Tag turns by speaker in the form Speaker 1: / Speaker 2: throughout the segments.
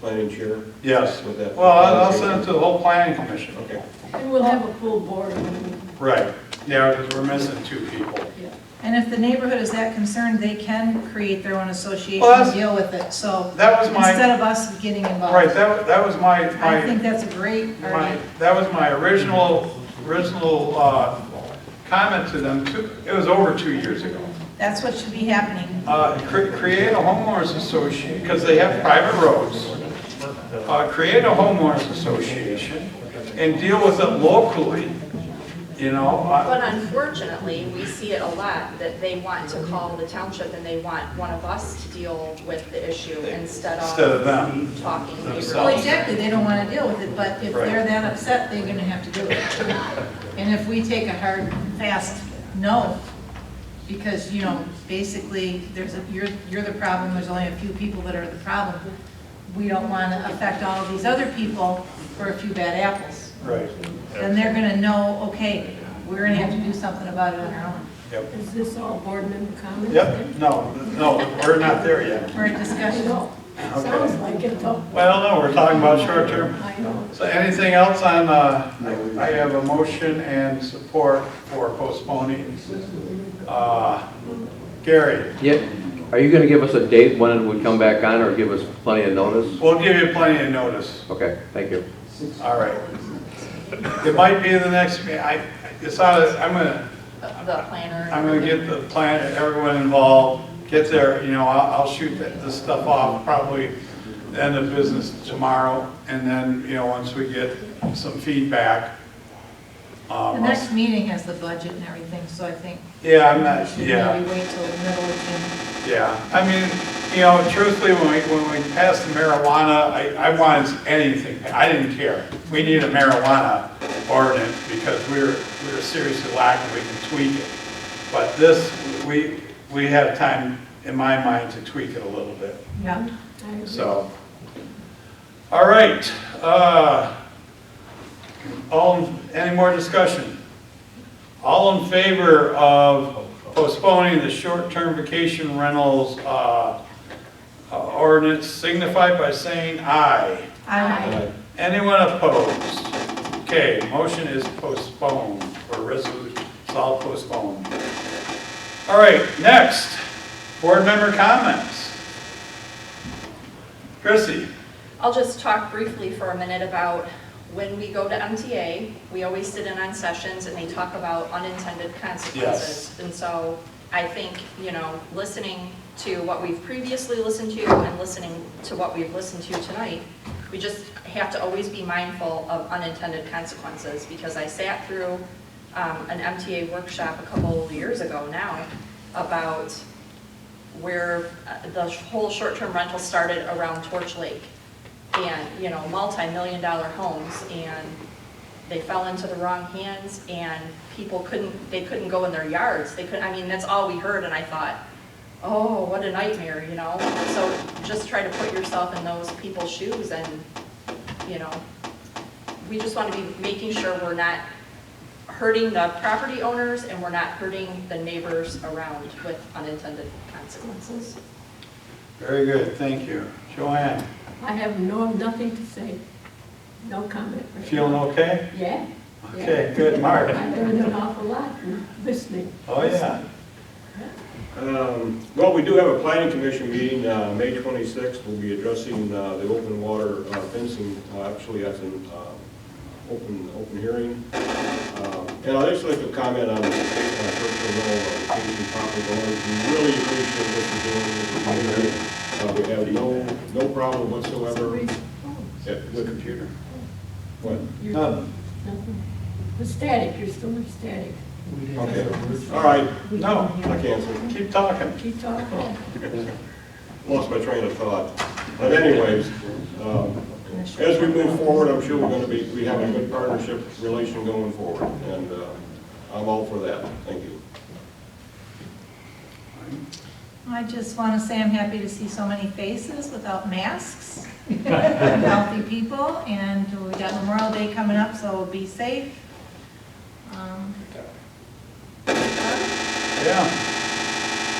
Speaker 1: planning chair
Speaker 2: Yes.
Speaker 1: with that?
Speaker 2: Well, I'll I'll send it to the whole planning commission.
Speaker 1: Okay.
Speaker 3: And we'll have a full board when
Speaker 2: Right, yeah, because we're missing two people.
Speaker 3: we, yeah.
Speaker 4: And if the neighborhood is that concerned, they can create their own association
Speaker 2: Well, that's-
Speaker 4: and deal with it, so
Speaker 2: That was my,
Speaker 4: instead of us getting involved.
Speaker 2: right, that, that was my,
Speaker 4: I
Speaker 2: my,
Speaker 4: think that's a great,
Speaker 2: my,
Speaker 4: argument.
Speaker 2: that was my original, original, uh, comment to them, two, it was over two years ago.
Speaker 4: that's what should be happening.
Speaker 2: Uh, cre- create a homeowners association, because they have private roads. Uh, create a homeowners association and deal with it locally, you know? uh, I-
Speaker 5: But unfortunately, we see it a lot, that they want to call the township and they want one of us to deal with the issue instead
Speaker 2: Instead of
Speaker 5: of
Speaker 2: them.
Speaker 5: talking to
Speaker 2: Themselves.
Speaker 4: Well,
Speaker 5: neighbors.
Speaker 4: exactly, they don't want to deal with it, but if they're that upset, they're going to have to do it. And if we take a hard, fast no, because, you know, basically, there's, a you're, you're the problem, there's only a few people that are the problem. We don't want to affect all of these other people for a few bad apples.
Speaker 2: Right,
Speaker 4: Then they're going to know, okay, we're going to have to do something about it on our own.
Speaker 2: yep.
Speaker 3: Is this all board member comments?
Speaker 2: Yep, no, no, we're not there yet.
Speaker 4: We're in discussion.
Speaker 3: No, sounds like it though.
Speaker 2: Well, no, we're talking about short-term.
Speaker 3: I know.
Speaker 2: So anything else on, uh, I I have a motion and support for postponing. Uh, Gary,
Speaker 6: Yeah, are you gonna give us a date when it would come back on, or give us plenty of notice?
Speaker 2: we'll give you plenty of notice,
Speaker 6: Okay, thank you.
Speaker 2: all right. It might be the next, me- I, it's out of, I'm gonna,
Speaker 5: The planner.
Speaker 2: I'm gonna get the plan, and everyone involved, get there, you know, I'll, I'll shoot that- this stuff off probably the end of business tomorrow, and then, you know, once we get some feedback.
Speaker 4: The
Speaker 2: um,
Speaker 4: next meeting has the budget and everything, so I think
Speaker 2: Yeah, I'm
Speaker 4: we
Speaker 2: not,
Speaker 4: should
Speaker 2: yeah.
Speaker 4: maybe wait till the middle of June.
Speaker 2: Yeah, I mean, you know, truthfully, when we, when we passed the marijuana, I, I wanted anything, I didn't care. We need a marijuana ordinance because we we're, we we're seriously lacking, we can tweak it. But this, we, we have time, in my mind, to tweak it a little bit,
Speaker 4: Yeah.
Speaker 2: so. All right, uh, all, any more discussion? All in favor of postponing the short-term vacation rentals uh, uh, ordinance signify by saying aye.
Speaker 4: I
Speaker 1: Aye.
Speaker 2: Anyone opposed? Okay, motion is postponed, or resolution, it's all postponed. All right, next, board member comments. Chrissy?
Speaker 5: I'll just talk briefly for a minute about when we go to MTA, we always sit in on sessions and they talk about unintended consequences. And so I think, you know, listening to what we've previously listened to and listening to what we've listened to tonight, we just have to always be mindful of unintended consequences because I sat through um, an MTA workshop a couple of years ago now about where uh, the whole short-term rental started around Torch Lake. And, you know, multi-million dollar homes and they fell into the wrong hands and people couldn't, they couldn't go in their yards. They couldn't, I mean, that's all we heard and I thought, oh, what a nightmare, you know? So just try to put yourself in those people's shoes and, you know, we just want to be making sure we're not hurting the property owners and we're not hurting the neighbors around with unintended consequences.
Speaker 2: Very good, thank you. Joanne,
Speaker 3: I have no, nothing to say. No comment. right now.
Speaker 2: feeling okay?
Speaker 3: Yeah. yeah.
Speaker 2: Okay, good, Mark.
Speaker 3: I learned an awful lot from listening.
Speaker 2: Oh, yeah.
Speaker 1: Um, Well, we do have a planning commission meeting, uh, May 26th. We'll be addressing uh, the open water uh, fencing, Uh, actually, that's an um, open, open hearing. Um, And I'd just like to comment on the state of personal vacation property owners. We really appreciate what you're doing with the community. Uh, We have no, no problem whatsoever. Yeah, with computer. What?
Speaker 3: Oh, You're-
Speaker 2: None.
Speaker 3: nothing. The static, you're still in static.
Speaker 1: Okay, all right,
Speaker 2: No,
Speaker 1: I canceled.
Speaker 2: keep talking.
Speaker 3: Keep talking.
Speaker 1: lost my train of thought. But anyways, um, as we move forward, I'm sure we're going to be, we have a good partnership relation going forward, and uh, I'm all for that. Thank you.
Speaker 4: I just want to say I'm happy to see so many faces without masks, healthy people, and we got Memorial Day coming up, so be safe. Um,
Speaker 2: Yeah.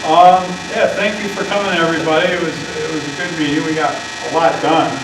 Speaker 2: Um, yeah, thank you for coming, everybody. It was, it was a good meeting. We got a lot done.